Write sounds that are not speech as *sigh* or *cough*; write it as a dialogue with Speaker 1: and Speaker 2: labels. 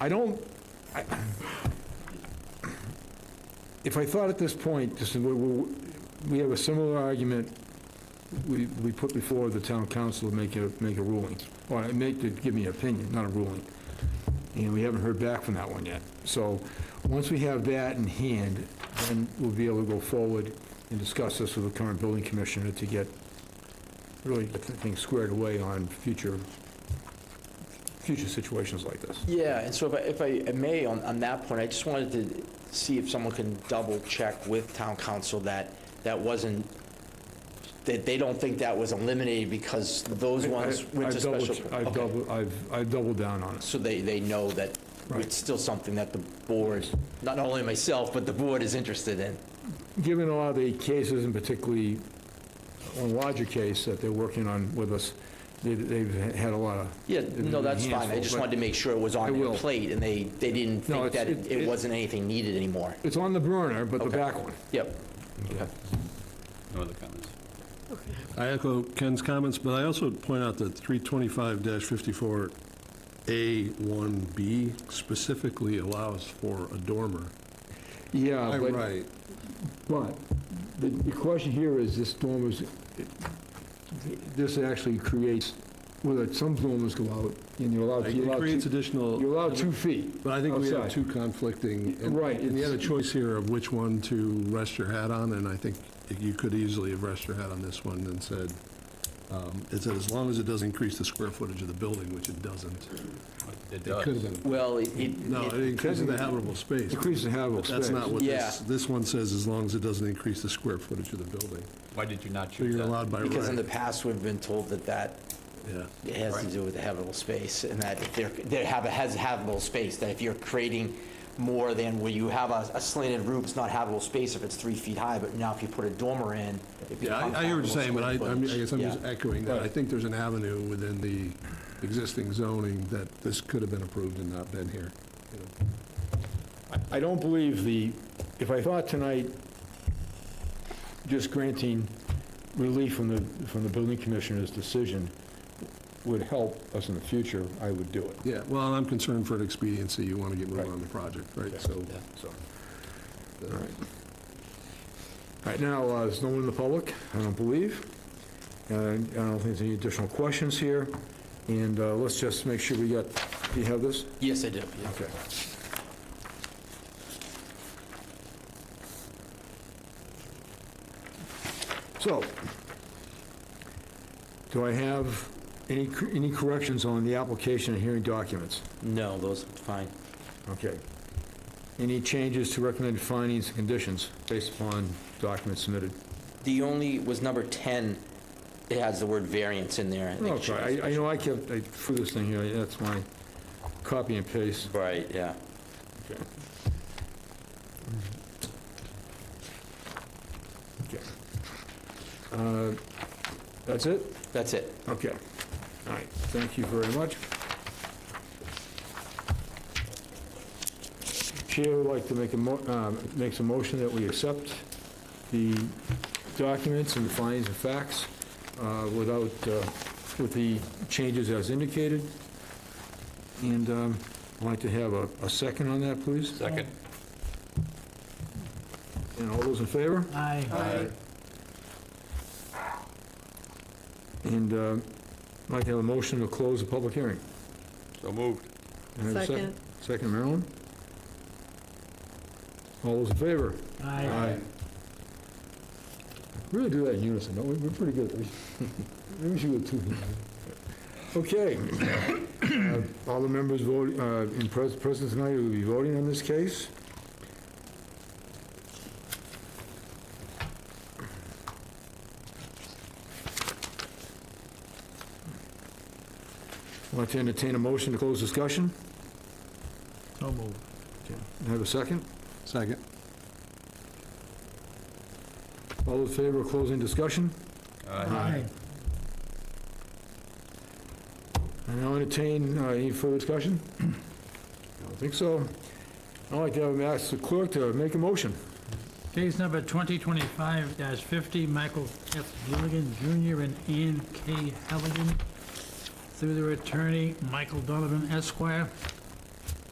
Speaker 1: I don't, I- if I thought at this point, this is, we- we we have a similar argument we we put before the town council to make a, make a ruling, or make, to give me an opinion, not a ruling, and we haven't heard back from that one yet. So, once we have that in hand, then we'll be able to go forward and discuss this with the current building commissioner to get, really, get things squared away on future, future situations like this.
Speaker 2: Yeah, and so if I, if I may, on, on that point, I just wanted to see if someone can double-check with town council that that wasn't, that they don't think that was eliminated because those
Speaker 1: I-
Speaker 2: ones
Speaker 1: I-
Speaker 2: went to
Speaker 1: I've doubled-
Speaker 2: special.
Speaker 1: I've
Speaker 2: Okay.
Speaker 1: doubled, I've, I've doubled down on it.
Speaker 2: So they, they know that
Speaker 1: Right.
Speaker 2: it's still something that the board, not only myself, but the board is interested in.
Speaker 1: Given a lot of the cases, and particularly one larger case that they're working on with us, they- they've had a lot of...
Speaker 2: Yeah, no, that's fine, I just wanted to make sure it was
Speaker 1: I
Speaker 2: on
Speaker 1: will.
Speaker 2: their plate, and they, they didn't
Speaker 1: No,
Speaker 2: think
Speaker 1: it's-
Speaker 2: that it
Speaker 1: it- it-
Speaker 2: it wasn't anything needed anymore.
Speaker 1: It's on the burner, but the
Speaker 2: Okay.
Speaker 1: back one.
Speaker 2: Yep,
Speaker 3: No other comments.
Speaker 4: I echo Ken's comments, but I also would point out that 325-54A1B specifically allows for a dormer.
Speaker 1: Yeah, but, but the- the question here is this dormers, it- this actually creates, well, some dormers go out, and you're allowed, you're
Speaker 4: It
Speaker 1: allowed
Speaker 4: creates
Speaker 1: two- you're
Speaker 4: additional,
Speaker 1: allowed two feet.
Speaker 4: but I think we have
Speaker 1: outside.
Speaker 4: two conflicting. and-
Speaker 1: Right,
Speaker 4: And you had a
Speaker 1: it's-
Speaker 4: choice here of which one to rest your hat on, and I think you could easily have rested your hat on this one and said, um, it said, as long as it doesn't increase the square footage of the building, which it doesn't.
Speaker 3: It
Speaker 4: It could have
Speaker 3: does.
Speaker 4: been,
Speaker 2: well, it- it,
Speaker 4: no, it increases the habitable space.
Speaker 1: Increase the habitable
Speaker 4: But
Speaker 1: space.
Speaker 4: That's not what
Speaker 2: Yeah.
Speaker 4: this, this one says, as long as it doesn't increase the square footage of the building.
Speaker 3: Why did you not
Speaker 4: So
Speaker 3: choose
Speaker 4: you're
Speaker 3: that?
Speaker 4: allowed by right.
Speaker 2: because in the past, we've been told that that
Speaker 4: Yeah.
Speaker 2: It has to
Speaker 3: Right.
Speaker 2: do with the habitable space, and that if there, there have, has habitable space, that if you're creating more than where you have a a slanted roof, it's not habitable space if it's three feet high, but now if you put a dormer in, it
Speaker 4: Yeah,
Speaker 2: becomes
Speaker 4: I- I hear what you're saying, but I,
Speaker 2: habitable
Speaker 4: I'm- I
Speaker 2: square
Speaker 4: guess I'm
Speaker 2: footage.
Speaker 4: just echoing that. I think there's an avenue within the existing zoning that this could have been approved and not been here. you know.
Speaker 1: I don't believe the, if I thought tonight, just granting relief from the, from the building commissioner's decision would help us in the future, I would do it.
Speaker 4: Yeah, well, and I'm concerned for an expediency. You want to get
Speaker 1: Right.
Speaker 4: moving on the project, right? So,
Speaker 2: Yeah.
Speaker 1: So,
Speaker 4: uh,
Speaker 1: all right. All right, now, uh, there's no one in the public, I don't believe. And I don't think there's any additional questions here. And uh, let's just make sure we got, do you have this?
Speaker 2: Yes, I do, yeah.
Speaker 1: Okay. So, do I have any, any corrections on the application and hearing documents?
Speaker 2: No, those are fine.
Speaker 1: Okay. Any changes to recommended findings and conditions based upon documents submitted?
Speaker 2: The only, was number 10, it has the word variance in there. I think it should
Speaker 1: Okay,
Speaker 2: be
Speaker 1: I, I know I kept, I threw this thing here, that's my copy and paste.
Speaker 2: special. Right, yeah.
Speaker 1: Okay. Okay. Uh, That's it?
Speaker 2: That's it.
Speaker 1: Okay. All right, thank you very much. Chair would like to make a, mo- um, makes a motion that we accept the documents and the findings and facts uh, without, uh, with the changes as indicated. And um, I'd like to have a a second on that, please.
Speaker 3: Second.
Speaker 1: And all those in favor?
Speaker 3: Aye.
Speaker 1: And um, I'd like to have a motion to close the public hearing.
Speaker 3: So moved.
Speaker 1: Can I have a
Speaker 5: Second.
Speaker 1: Second, Marilyn? All those in favor? Aye. Really do that in unison, don't we? *laughs* We're pretty good. We- Maybe we should go two. Okay. Uh, All the members vote, uh, in pres- presence tonight who will be voting on this case. I'd like to entertain a motion to close discussion.
Speaker 4: So moved.
Speaker 1: Have a second?
Speaker 4: Second.
Speaker 1: All those in favor of closing discussion?
Speaker 3: Aye.
Speaker 1: I now entertain uh, any further discussion? *clears throat* I don't think so. I'd like to have- ask the clerk to make a motion.
Speaker 6: Case number 2025-50, Michael F. Gilligan Jr. and Ann K. Halligan, through their attorney, Michael Donovan Esquire,